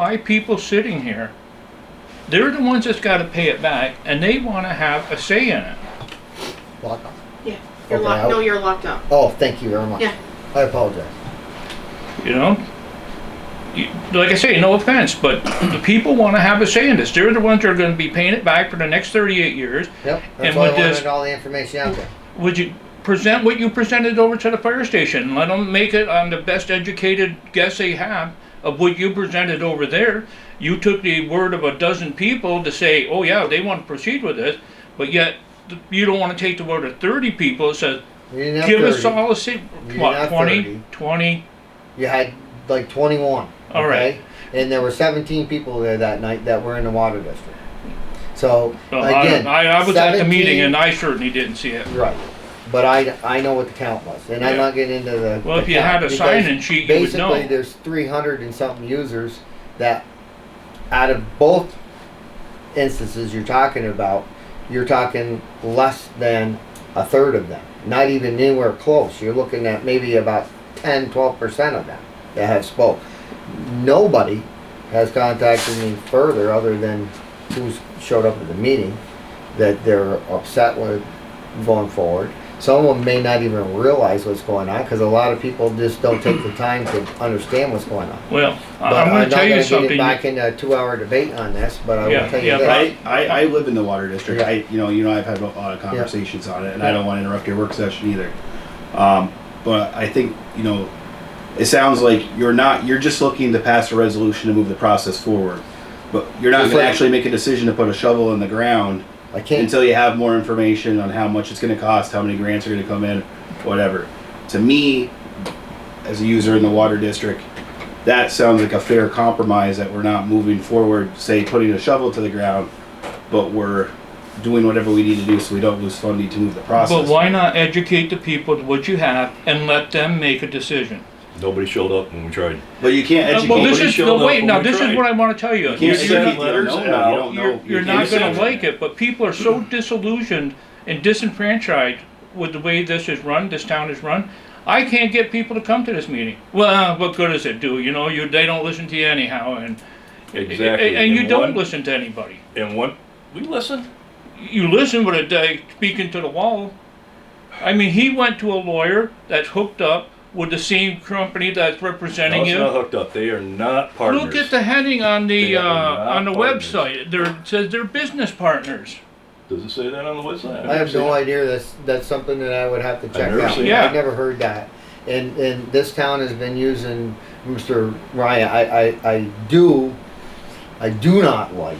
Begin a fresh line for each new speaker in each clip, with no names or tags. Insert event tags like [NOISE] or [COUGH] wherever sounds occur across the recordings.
by people sitting here, they're the ones that's gotta pay it back, and they wanna have a say in it.
Lock off.
Yeah, you're
Okay,
locked,
I'll-
no, you're locked up.
Oh, thank you very much.
Yeah.
I apologize.
you know? You- Like I say, no offense, but the people want to have a say in this. They're the ones that are going to be paying it back for the next 38 years.
Yep.
And
That's why I
with
wanted
this-
all the information out there.
Would you present what you presented over to the fire station? and Let them make it on the best educated guess they have of what you presented over there. You took the word of a dozen people to say, oh yeah, they want to proceed with this, but yet th- you don't want to take the word of 30 people that says,
You didn't have
give
30.
us all a, si-
You're
what,
not
20,
30.
20?
You had like 21.
All right.
And there were 17 people there that night that were in the water district. So
Well, I-
again,
I, I was at the
17
meeting and I certainly didn't see it.
right. But I, I know what the count was, and I'm
Yeah.
not getting into the.
Well,
the
if you had
count
a
because
sign-in sheet, you would
basically
know.
there's 300 and something users that, out of both instances you're talking about, you're talking less than a third of them. Not even anywhere close. You're looking at maybe about 10, 12 percent of them that have spoke. Nobody has contacted me further other than who's showed up at the meeting that they're upset with going forward. Some of them may not even realize what's going on because a lot of people just don't take the time to understand what's going on.
Well,
But
I- I'm going
not
to tell you
gonna get it
something.
Back in a two-hour debate on this, but I
Yeah,
will tell
yeah,
you that.
I, I, I live in the water district. I you know you know I've had a lot of conversations on it, and I don't want to interrupt your work session either. Um, but I think you know it sounds like you're not you're just looking to pass a resolution to move the process forward, but you're not
Just
going to
like-
actually make a decision to put a shovel in the ground
I can't,
until you have more information on how much it's going to cost, how many grants are going to come in, whatever. To me, as a user in the water district, that sounds like a fair compromise that we're not moving forward, say, putting a shovel to the ground, but we're doing whatever we need to do so we don't lose funding to move the process.
But why not educate the people to what you have and let them make a decision?
Nobody showed up when we tried.
But you can't
Uh,
educate.
Well, this
Nobody
is,
showed
no,
up
wait,
when
now,
we
this is
tried.
what I want to tell you.
you can't
You're-
send
educate the
letters
unknown.
out.
You don't know.
You're,
You
you're
can't
not going
send
to like it, but people are
[CLEARS THROAT]
so disillusioned and disenfranchised with the way this is run, this town is run. I can't get people to come to this meeting. Well, uh, what good does it do? You know, you, they don't listen to you anyhow and,
Exactly.
and and you don't
one-
listen to anybody.
And one, we listened.
you listen with a day speaking to the wall. I mean, he went to a lawyer that's hooked up with the same company that's
No,
representing
it's not
him.
hooked up. They are not partners.
Look at the heading on the
They
uh,
are not
on the
partners.
website. There it says they're business partners.
Does it say that on the website?
I have no idea, that's, that's something that I would have to check
never
out.
seen
Yeah.
I never heard that. And, and this town has been using Mr. Ryan, I, I, I do, I do not like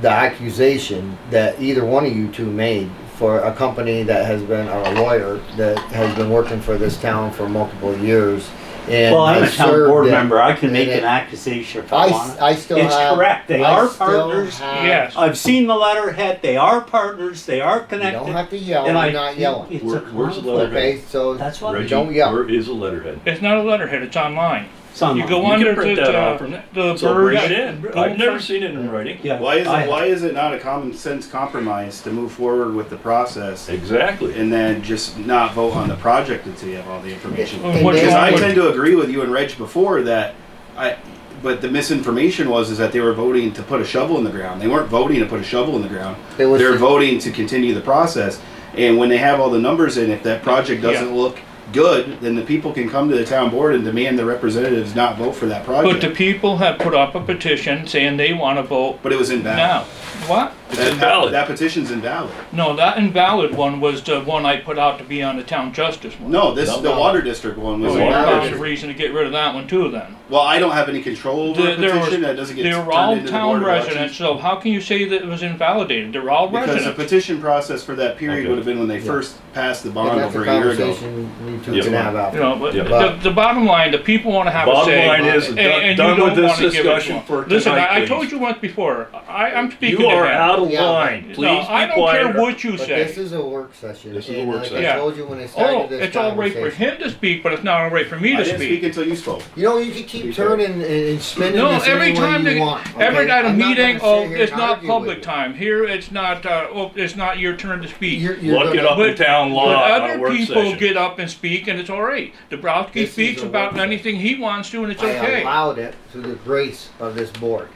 the accusation that either one of you two made for a company that has been, or a lawyer, that has been working for this town for multiple years and
Well, I'm a
has
town board
served it.
member, I can
and
make
it-
an accusation if I
I,
want
s-
it.
I still have.
It's correct, they
I
are
still
partners.
have-
Yes.
I've seen the letterhead, they are partners, they are
You
connected.
don't have to yell,
and I
I'm not
think
yelling,
It's a
Where- where's the
conflict.
letterhead?
okay, so.
That's what.
Reggie,
Don't yell.
where is the letterhead?
It's not a letterhead. It's online.
Some
You
of
go
them.
can
under
print
the
that
uh,
out from there.
the
So
bird.
bring it in. I've never seen it in writing.
Yeah,
Why is
I-
it, why is it not a common sense compromise to move forward with the process
Exactly.
and then just not vote on the project until you have all the information?
Well, what
And
you
Because I
want-
tend to agree with you and Reg before that I but the misinformation was is that they were voting to put a shovel in the ground. They weren't voting to put a shovel in the ground.
It was
They're
the-
voting to continue the process. And when they have all the numbers in, if that project doesn't
Yeah.
look good, then the people can come to the town board and demand the representatives not vote for that
But the
project.
people have put up a petition saying they want to vote
But it was
now.
invalid.
What?
It's
That-
invalid.
That petition's invalid.
No, that invalid one was the one I put out to be on the town justice one.
No, this,
No,
the
no.
water district one was
So
The
you
water
invalid.
found a
district.
reason to get rid of that one too then.
Well, I don't have any control over
There-
a
there was-
petition that doesn't get
They're all
turned into the
town
board of elections.
residents, so how can you say that it was invalidated? They're all
Because the
residents.
petition process for that period
Okay.
would have been when they
Yeah.
first passed the
And
bond
that's
over
a
a year ago.
conversation you two
Yeah.
can have out
You
there.
know, but
Yeah.
the, the bottom line, the people wanna have a
Bottom
say.
line is,
and-
done
and you
done
don't
with this
wanna give it to
discussion
them.
for
Listen,
tonight,
I, I
please.
told you once before, I, I'm speaking
You
to
are
ahead.
out of
Yeah.
line. Please
No, I
be
don't
quiet.
care what you
But
say.
this is a work session.
This is a
and
work
like
session.
I
Yeah.
told you when I started
Oh,
this
it's all right for
conversation-
him to speak, but it's not all right for me
I
to
didn't speak
speak.
until you spoke.
You know, you can keep turning and, and spinning
No,
this
every
any way
time,
you
they-
want.
every
okay?
at a
I'm not gonna
meeting,
sit
oh,
here
it's
and
not
argue with
public
you.
time. Here, it's not, uh, oh, it's not your turn to speak.
You're, you're
Look it
gonna-
up in town
But
law on a
other
work
people
session.
get up and speak, and it's all right. Dabrowski
This is
speaks
a
about
work session.
anything he wants to, and it's
I
okay.
allowed it through the grace of this board.